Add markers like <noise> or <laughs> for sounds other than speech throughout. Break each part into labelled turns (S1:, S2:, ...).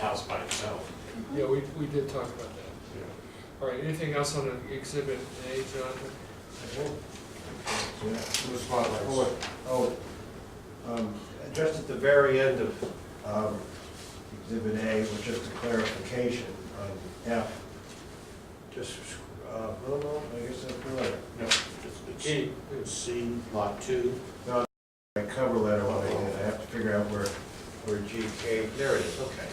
S1: the house by itself.
S2: Yeah, we, we did talk about that. All right, anything else on the exhibit A, Jonathan?
S3: Yeah, two spotlights. Oh, oh, um, just at the very end of um, Exhibit A, was just a clarification on F. Just, uh, no, no, I guess that's the letter.
S1: No, it's, it's C, lot two.
S3: My cover letter, what I did, I have to figure out where, where G came, there it is, okay.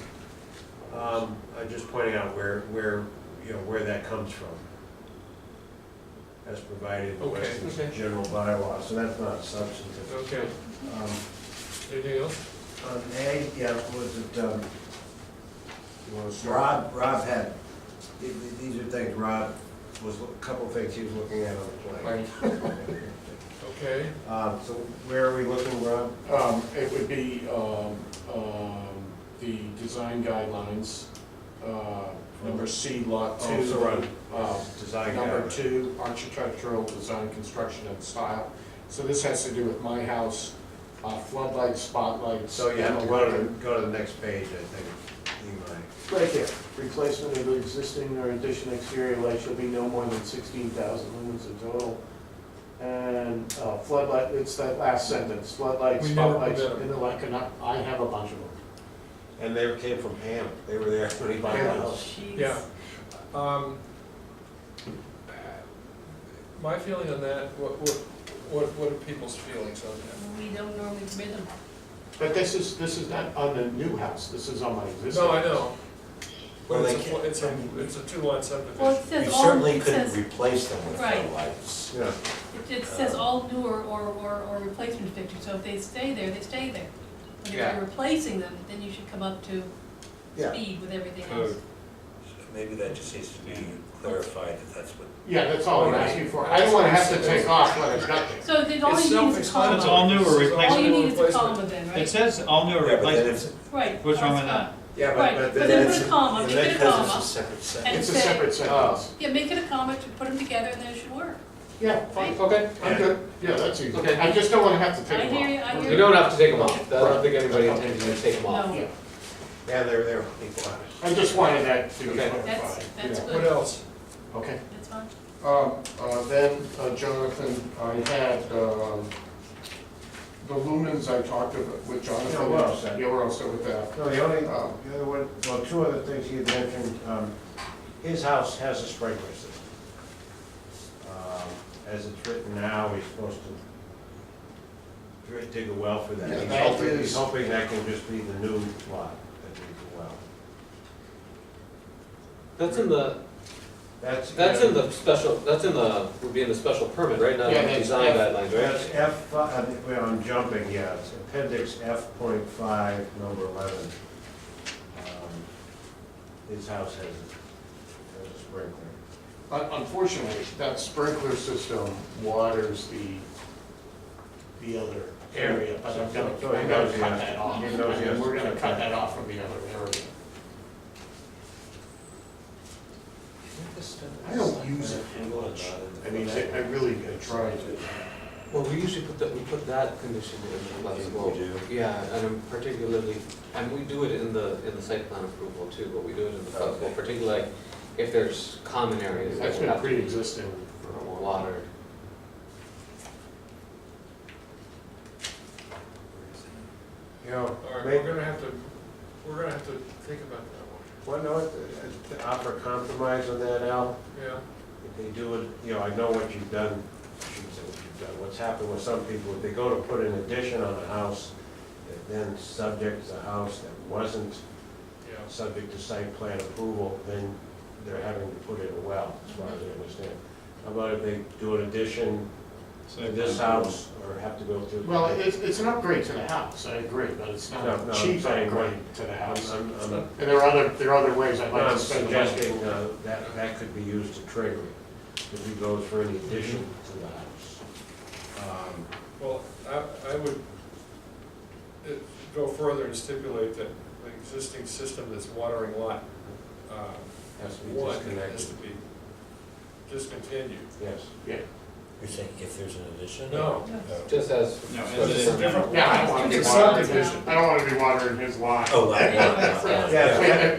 S3: Um, I'm just pointing out where, where, you know, where that comes from. As provided in
S2: Okay,
S3: Weston's
S2: okay.
S3: general bylaw, so that's not substantive.
S2: Okay,
S3: Um,
S2: anything else?
S3: On A, yeah, was it, um, Rob, Rob had, th- th- these are things Rob was, a couple things he was looking at on the plan.
S2: Okay,
S3: <laughs> Um, so where are we looking, Rob?
S1: Um, it would be, um, um, the design guidelines, uh, number C, lot two.
S3: Oh, sorry.
S1: uh,
S3: Design
S1: Number
S3: guidelines.
S1: two, architectural design, construction and style. So this has to do with my house, uh, floodlights, spotlights.
S3: So you have to
S1: and
S3: go to, the-
S1: lighting.
S3: go to the next page, I think, Eli.
S4: Right there, replacement of existing or addition exterior light shall be no more than sixteen thousand lumens in total. And uh, floodlight, it's that last sentence, floodlights,
S2: We never put
S4: spotlights,
S2: that in.
S4: and the like, and I, I have a bunch of them.
S3: And they came from Ham, they were there <laughs> when he bought the
S4: Yeah.
S3: house.
S2: yeah. Um, My feeling on that, what, what, what what are people's feelings on that?
S5: We don't normally bid them.
S4: But this is, this is not on the new house, this is on my existing.
S2: No, I
S4: house.
S2: know.
S6: Well,
S2: But
S6: they
S2: it's a,
S6: can't-
S2: it's
S6: I
S2: a,
S6: mean,
S2: it's a two-line subdivision.
S5: Well, it
S6: You
S5: says all,
S6: certainly
S5: it
S6: couldn't
S5: says,
S6: replace them with
S5: Right.
S6: floodlights.
S3: Yeah,
S5: it- it says all new or, or, or or replacement fixtures, so if they stay there, they stay there. But if
S2: Yeah.
S5: you're replacing them, then you should come up to
S3: Yeah.
S5: speed with everything
S2: Code.
S5: else.
S6: Maybe that just needs to be clarified that that's what.
S4: Yeah, that's all I'm asking for, I don't wanna have to take off when it's not there.
S5: So then all
S2: It's
S5: you need is a
S2: self-explanatory.
S7: It's all
S5: column.
S7: new or
S2: It's
S5: All you
S7: replacement.
S5: need is a
S2: replacement.
S5: column then,
S7: It
S5: right?
S7: says all new
S6: Yeah, but then
S7: replacements.
S6: it's-
S5: Right.
S7: What's wrong
S5: that's
S7: with that?
S5: fine.
S3: yeah,
S5: Right,
S3: but, but
S5: but then
S3: that's,
S5: put a comma,
S3: and
S5: you
S3: that
S5: get a
S3: because
S5: comma.
S3: it's a separate section.
S5: And
S4: It's a
S5: say-
S4: separate sentence.
S2: Oh.
S5: Yeah, make it a comment, to put them together, and then it should work.
S4: Yeah, fine, okay, I'm good, yeah, that's easy, I just don't wanna have to
S5: I
S4: take
S5: hear
S4: them
S5: you, I hear you.
S8: You don't have to take them off. I don't think anybody intends you to take them off.
S4: off. Yeah,
S5: No,
S3: Yeah, they're there, people on it.
S4: I just wanted that to be
S8: Okay.
S4: clarified.
S5: that's, that's
S4: yeah.
S2: What
S5: good,
S2: else?
S4: Okay.
S5: that's fine.
S4: Um, uh, Then, uh, Jonathan, I had um, the lumens I talked about with Jonathan.
S3: Yeah, we're all set.
S4: Yeah, we're all set with that.
S3: No, the only,
S4: Oh.
S3: the other one, well, two other things he had mentioned, um, his house has a sprinkler system. Um, As it's written now, he's supposed to dr- dig a well for that.
S4: Yeah,
S3: He's
S4: that
S3: hoping,
S4: is-
S3: he's hoping that can just be the new lot that needs a well.
S8: That's in the,
S3: That's.
S8: that's in the special, that's in the, would be in the special permit, right? Not
S4: Yeah,
S8: in the
S4: that's-
S8: design guidelines,
S3: That's
S8: right?
S3: F, fi- I think- well, I'm jumping, yeah, it's appendix F point five, number eleven. Um, His house has, a- has a sprinkler.
S4: Un- Unfortunately, that sprinkler system waters the, the other area, but I'm gonna,
S3: So he
S4: I'm gonna
S3: knows he
S4: cut
S3: has-
S4: that off.
S3: he knows he
S4: And
S3: has
S4: We're
S3: to
S4: gonna
S3: cut
S4: cut
S3: that.
S4: that off from the other area. I don't use it much. I mean, I I really I try to.
S8: Well, we usually put that, we put that condition in the last
S6: You do?
S8: Yeah, and I'm particularly, and we do it in the, in the site plan approval too, but we do it in the flood zone,
S6: Okay.
S8: particularly like if there's common areas that
S4: That's
S8: would
S4: been
S8: have to be
S4: pre-existing for a while.
S8: watered.
S3: You know,
S2: All right,
S3: maybe-
S2: we're gonna have to, we're gonna have to think about that
S3: Well, no, it- it- to offer compromise on that, Al,
S2: one. Yeah,
S3: if they do it, you know, I know what you've done, I shouldn't say what you've done, what's happened with some people, if they go to put an addition on a house, that then subjects a house that wasn't
S2: yeah.
S3: subject to site plan approval, then they're having to put in a well, as far as I understand. How about if they do an addition to this house, or have to go through?
S4: Well, it's, it's an upgrade to the house, I agree, but it's not
S3: No, no,
S4: a
S3: I'm
S4: cheap
S3: saying,
S4: upgrade to the
S3: I'm,
S4: house.
S3: I'm- I'm-
S4: And there are other, there are other ways I'd like
S3: I'm
S4: to spend the money.
S3: suggesting uh, that, that could be used to trigger it, if he goes for an addition to the house. Um,
S2: Well, I, I would uh, go further and stipulate that the existing system that's watering lot, uh,
S3: Has to be
S2: one has
S3: disconnected,
S2: to be discontinued.
S3: yes.
S4: Yeah,
S6: You're saying if there's an addition? Oh,
S2: No.
S8: just as.
S7: No, as
S2: But it's a different.
S4: Yeah, I don't want to be
S2: It's
S4: watering,
S2: subdivision.
S4: I don't want to be watering his lawn.
S6: Oh, wow, wow, wow, wow.
S5: Yeah.
S3: Yeah,